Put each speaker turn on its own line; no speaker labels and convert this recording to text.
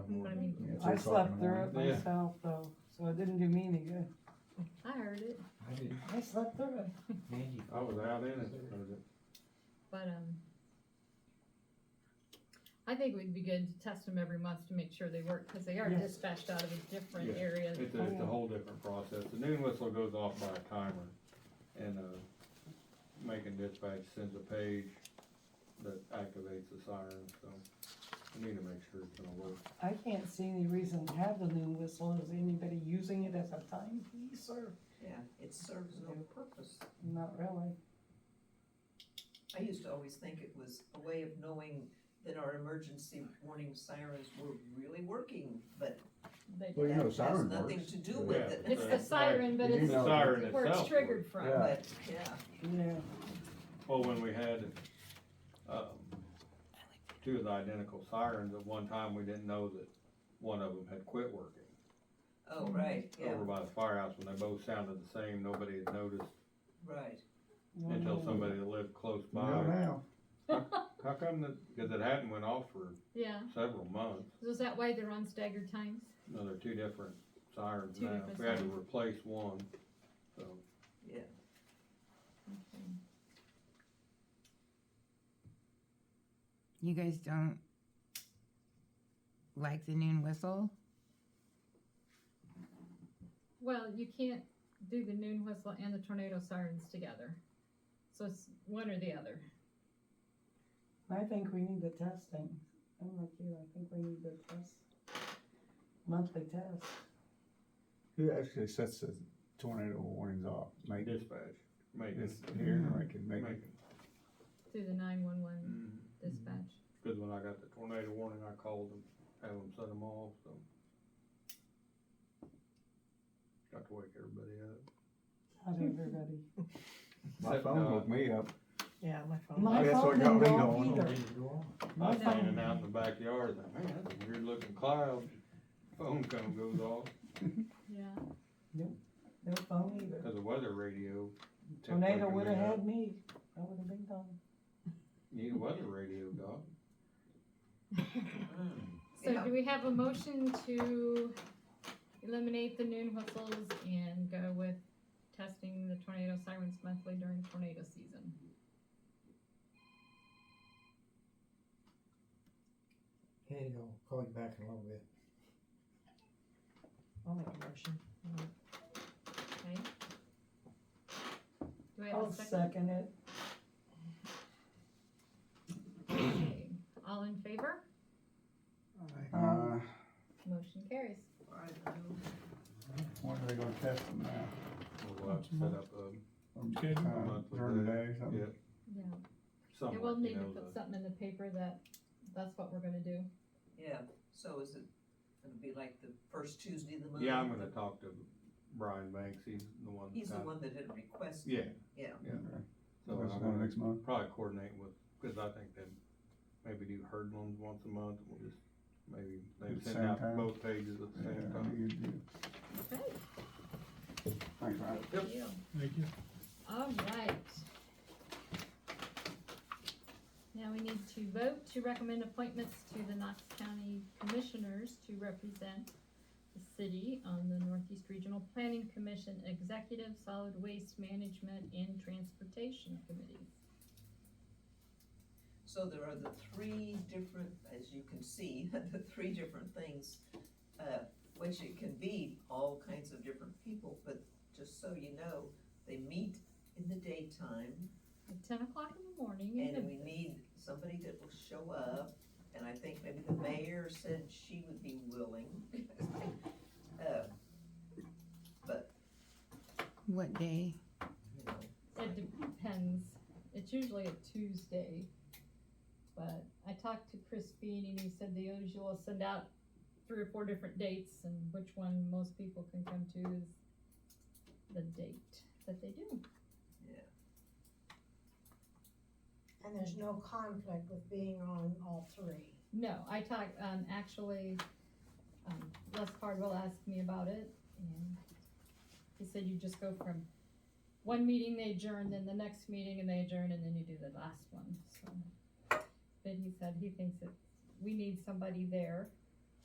at two
I
o'clock in
slept
the
through
morning.
it
Yeah.
myself though, so it didn't do me any good.
I heard it,
I did,
I slept through it.
Angie,
I was out in it, heard it.
but, um, I think we'd be good to test them every month to make sure they work, cause they are
Yes.
dispatched out of a different
Yeah.
area.
It's a, it's a whole different process. The noon whistle goes off by a timer and, uh, Macon Dispatch sends a page that activates the siren, so we need to make sure it's gonna work.
I can't see any reason to have the noon whistle. Is anybody using it as a timepiece or?
Yeah, it serves no purpose.
Not really.
I used to always think it was a way of knowing that our emergency warning sirens were really working, but
They-
that
Well, you know,
has
siren
nothing
works.
to do
Yeah,
with
but
it.
It's the
that's
siren, but
You
it's
know, siren
where it's
itself
triggered
works.
from.
Yeah.
But, yeah,
Yeah.
Well, when we had, um, two of the identical sirens, at one time, we didn't know that one of them had quit working.
oh, right, yeah,
Over by the firehouse, when they both sounded the same, nobody had noticed
right.
until somebody that lived close
You know
by.
now,
How come that, cause it hadn't went off for
Yeah,
several months,
so is that why they're on staggered times?
no, they're two different sirens
Two
now,
different
we had to
sirens.
replace one, so.
Okay.
You guys don't like the noon whistle?
Well, you can't do the noon whistle and the tornado sirens together. So it's one or the other.
I think we need the testing. I'm like you, I think we need the test. Monthly test.
who actually sets the tornado warnings off? Like,
Dispatch, Macon,
it's here, or I can make
Macon.
Through the nine-one-one
Mm.
dispatch.
Cause when I got the tornado warning, I called them, had them set them off, so. Got to wake everybody up.
Not everybody.
my
Except,
phone
uh,
woke me up.
Yeah, my phone.
My
That's
phone
what got
didn't
me
go off
going.
either.
did you go off?
I
My
was standing
phone.
out in the backyard, like, man, that's a weird looking cloud, phone cone goes off,
Yeah.
No phone either.
cause the weather radio. kept
Tornado
waking me
would've
up.
had me. I would've been gone.
Need a weather radio, dog.
Mm.
So
Yeah.
do we have a motion to eliminate the noon whistles and go with testing the tornado sirens monthly during tornado season?
Andy, I'll call you back in a little bit.
Oh
I'll make a motion.
Okay? Do I have
I'll
a second?
second it.
Okay. All in favor?
Uh,
Motion carries.
I know.
when are they gonna test them now?
We'll have to set up a,
Uh, During the day or something?
yeah,
Yeah.
something,
Yeah, we'll
you
need to
know,
put
the,
something in the paper that, that's what we're gonna do.
Yeah, so is it, it'll be like the first Tuesday of the month?
yeah, I'm gonna talk to Brian Banks, he's the one.
He's the
that-
one that had requested.
Yeah,
Yeah.
yeah,
Okay.
so
That's
I'm
about
gonna
next month.
probably coordinate with, cause I think they maybe do herd ones once a month, we'll just maybe,
At
they
the
send
same
out
time?
both pages at the
Yeah,
same
that'd
time.
be good too.
Okay.
Thanks, Ryan.
Yep.
Thank you.
Thank you.
All right. Now we need to vote to recommend appointments to the Knox County Commissioners to represent the city on the Northeast Regional Planning Commission Executive Solid Waste Management and Transportation Committees.
So there are the three different, as you can see, the three different things, uh, which it can be all kinds of different people, but just so you know, they meet in the daytime,
At ten o'clock in the morning and
and
then
we need somebody that will show up, and I think maybe the mayor said she would be willing. Uh,
What day?
you know,
it depends. It's usually a Tuesday. But I talked to Chris Bean and he said the usual send out three or four different dates and which one most people can come to is the date that they do.
And there's no conflict with being on all three.
No, I talked, um, actually, um, Les Cardwell asked me about it, and he said you just go from one meeting they adjourn, then the next meeting and they adjourn, and then you do the last one, so. But he said he thinks that we need somebody there